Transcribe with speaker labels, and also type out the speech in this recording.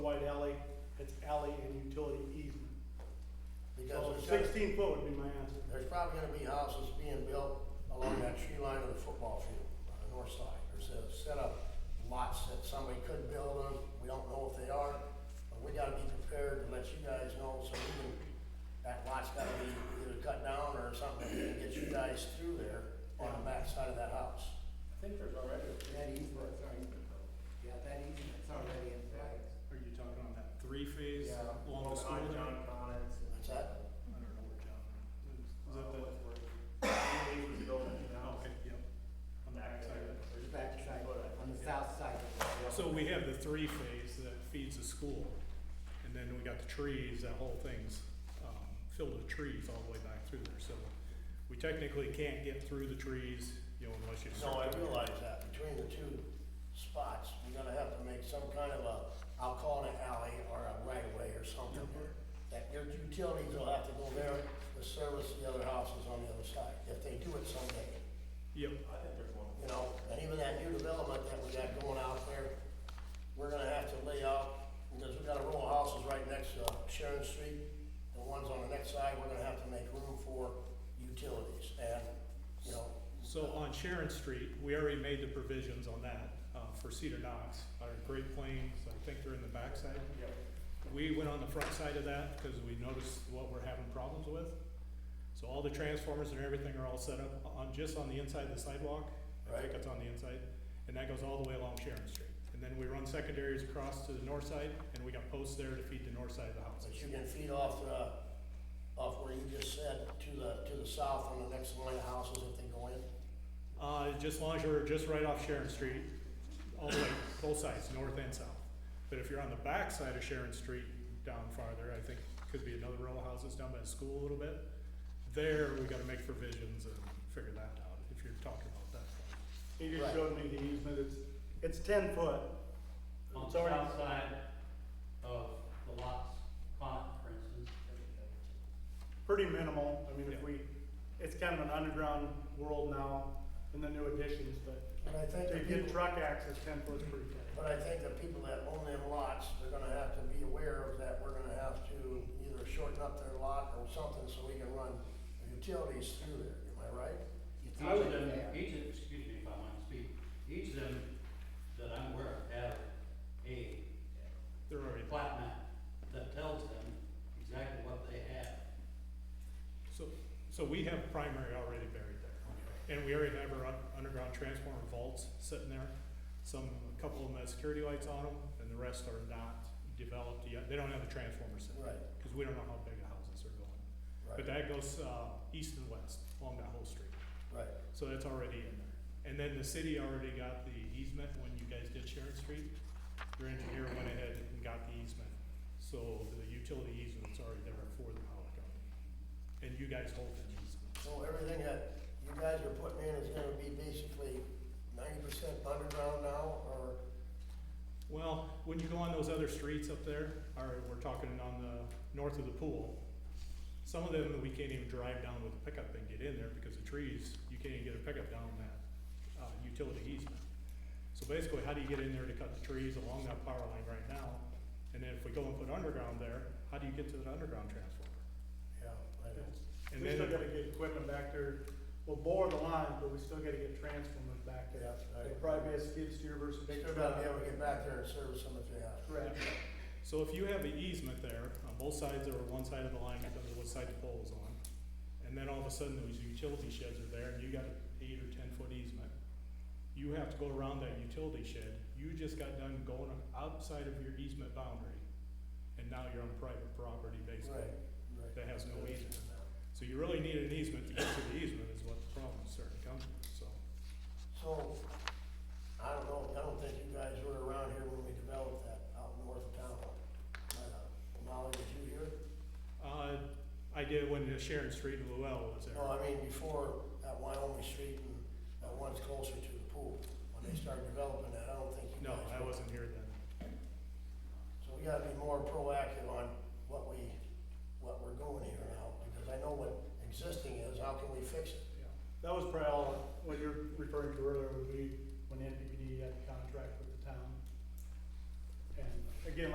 Speaker 1: alley and utility easement. So
Speaker 2: Because there's,
Speaker 1: sixteen foot would be my answer.
Speaker 2: there's probably gonna be houses being built along that tree line of the football field on the north side. There's a set of lots that somebody could build on, we don't know if they are, but we gotta be prepared to let you guys know, so we can, that lot's gotta be either cut down or something, to get you guys through there on the back side of that house.
Speaker 3: I think there's already a
Speaker 4: That easement, yeah, that easement's already in place.
Speaker 5: Are you talking on that three phase
Speaker 4: Yeah.
Speaker 5: along the school there? I
Speaker 3: John Connors and.
Speaker 2: What's that?
Speaker 5: don't know where John is. Is that the,
Speaker 3: He was building the house.
Speaker 5: okay, yep, on the back side of it.
Speaker 3: There's
Speaker 4: The
Speaker 3: a
Speaker 4: back side, on the south side.
Speaker 5: So we have the three phase that feeds the school, and then we got the trees, that whole thing's, um, filled with trees all the way back through there, so we technically can't get through the trees, you know, unless you.
Speaker 2: No, I
Speaker 5: start to-
Speaker 2: realize that, between the two spots, you're gonna have to make some kind of a, I'll call it an alley or a right of way or something. That your utilities will have to go there to service the other houses on the other side, if they do it someday,
Speaker 5: Yep,
Speaker 3: I think there's one.
Speaker 2: you know? And even that new development that we got going out there, we're gonna have to lay out, because we got a row of houses right next to Sharon Street. The ones on the next side, we're gonna have to make room for utilities and, you know,
Speaker 5: so on Sharon Street, we already made the provisions on that, uh, for Cedar Knox, our Great Plains, I think they're in the backside.
Speaker 3: Yep.
Speaker 5: We went on the front side of that because we noticed what we're having problems with. So all the transformers and everything are all set up on, just on the inside of the sidewalk. I think
Speaker 2: Right.
Speaker 5: it's on the inside, and that goes all the way along Sharon Street. And then we run secondaries across to the north side, and we got posts there to feed the north side of the house.
Speaker 2: But you can feed off the, off where you just said, to the, to the south on the next line of houses if they go in.
Speaker 5: Uh, just as long as you're just right off Sharon Street, all the way, both sides, north and south. But if you're on the back side of Sharon Street, down farther, I think could be another row of houses down by the school a little bit. There, we gotta make provisions and figure that out, if you're talking about that.
Speaker 1: He just
Speaker 2: Right.
Speaker 1: showed me the easement, it's, it's ten foot.
Speaker 6: on
Speaker 1: It's
Speaker 6: the
Speaker 1: already-
Speaker 6: south side of the lots, Pond, for instance.
Speaker 1: pretty minimal, I mean, if
Speaker 5: Yeah.
Speaker 1: we, it's kind of an underground world now in the new additions, but
Speaker 2: But I think
Speaker 1: to
Speaker 2: the
Speaker 1: get
Speaker 2: people,
Speaker 1: truck access, ten foot's pretty tight.
Speaker 2: but I think the people that own them lots, they're gonna have to be aware of that, we're gonna have to either shorten up their lot or something so we can run utilities through there, am I right?
Speaker 4: It's
Speaker 6: Each of
Speaker 4: easement
Speaker 6: them,
Speaker 4: there.
Speaker 6: each of, excuse me if I might speak, each of them that I'm aware of have a
Speaker 5: They're already,
Speaker 6: plat map that tells them exactly what they have.
Speaker 5: so, so we have primary already buried there. And we already have our un- underground transformer vaults sitting there. Some, a couple of them have security lights on them, and the rest are not developed yet. They don't have the transformers in
Speaker 2: Right,
Speaker 5: because we don't know how big the houses are going. But
Speaker 2: right,
Speaker 5: that goes, uh, east and west along that whole street,
Speaker 2: right.
Speaker 5: so that's already in there. And then the city already got the easement when you guys did Sharon Street. Your engineer went ahead and got the easement, so the utility easement's already there for the Howard County. And you guys hold that easement.
Speaker 2: So everything that you guys are putting in is gonna be basically ninety percent underground now, or,
Speaker 5: Well, when you go on those other streets up there, or we're talking on the, north of the pool, some of them, we can't even drive down with a pickup and get in there because of trees, you can't even get a pickup down that, uh, utility easement. So basically, how do you get in there to cut the trees along that power line right now? And then if we go and put underground there, how do you get to the underground transformer?
Speaker 2: yeah, I don't-
Speaker 5: And
Speaker 1: We still
Speaker 5: then,
Speaker 1: gotta get equipment back there, we'll bore the line, but we still gotta get transformers back there.
Speaker 2: yeah. I-
Speaker 1: It'll probably be a skid steer versus a
Speaker 2: They
Speaker 1: big
Speaker 2: still
Speaker 1: truck.
Speaker 2: gotta be able to get back there and service them if they have.
Speaker 1: Correct.
Speaker 5: so if you have the easement there, on both sides, or one side of the line, because of what side the pole is on, and then all of a sudden, those utility sheds are there, and you got an eight or ten-foot easement, you have to go around that utility shed, you just got done going outside of your easement boundary, and now you're on private property basically,
Speaker 2: right.
Speaker 5: that has no easement. So you really need an easement to get to the easement is what the problem is starting to come from, so.
Speaker 2: So, I don't know, I don't think you guys were around here when we developed that out north of town. Uh, Molly, was you here?
Speaker 5: Uh, I did when the Sharon Street and Luell was there.
Speaker 2: No, Oh, I mean, before that Wyoming Street and that one's closer to the pool, when they started developing that, I don't think you
Speaker 5: No,
Speaker 2: guys.
Speaker 5: I
Speaker 2: were.
Speaker 5: wasn't here then.
Speaker 2: So we gotta be more proactive on what we, what we're going here now, because I know what existing is, how can we fix it?
Speaker 1: That was probably all, what you're referring to earlier, would be when NPD had a contract with the town. And again,